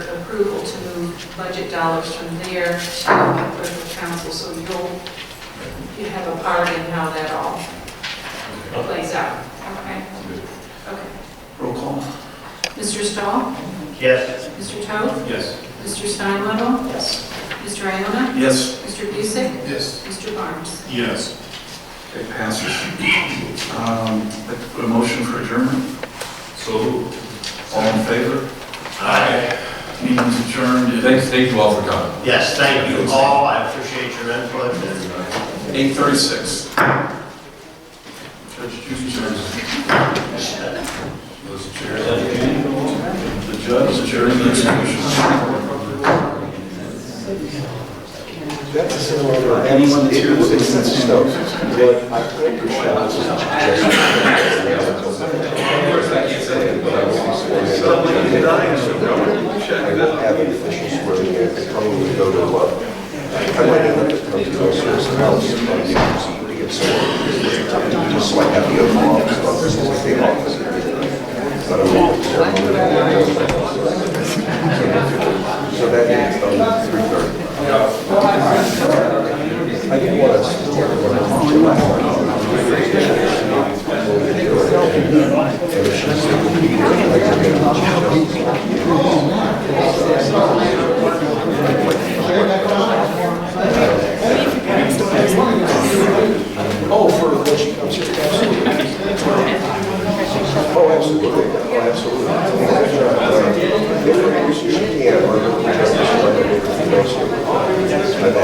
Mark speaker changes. Speaker 1: approval to move budget dollars from there to the clerk council, so you'll, you have a part in how that all plays out. Okay, okay.
Speaker 2: Roll call?
Speaker 1: Mr. Stahl?
Speaker 3: Yes.
Speaker 1: Mr. Toad?
Speaker 3: Yes.
Speaker 1: Mr. Steinwaddle?
Speaker 2: Yes.
Speaker 1: Mr. Iona?
Speaker 2: Yes.
Speaker 1: Mr. Busick?
Speaker 3: Yes.
Speaker 1: Mr. Barnes?
Speaker 3: Yes.
Speaker 2: It passes. Um, A a motion for adjournment?
Speaker 3: So.
Speaker 2: All in favor?
Speaker 3: Aye.
Speaker 2: Meeting's adjourned at
Speaker 4: Thanks, thank you all for coming.
Speaker 3: Yes, thank you all. I appreciate your input and uh,
Speaker 2: 8:36. Judge Judy adjourns. uh, The judge adjourned the execution.
Speaker 5: That's in order. Anyone that's here was in Stowe. But I could be I won't have an official swearing in. They probably go to, uh, I might end up at the person else to come to proceed to get sworn. Just so I have the oath of office, but this is the office. But I'm not ceremony. um, Oh,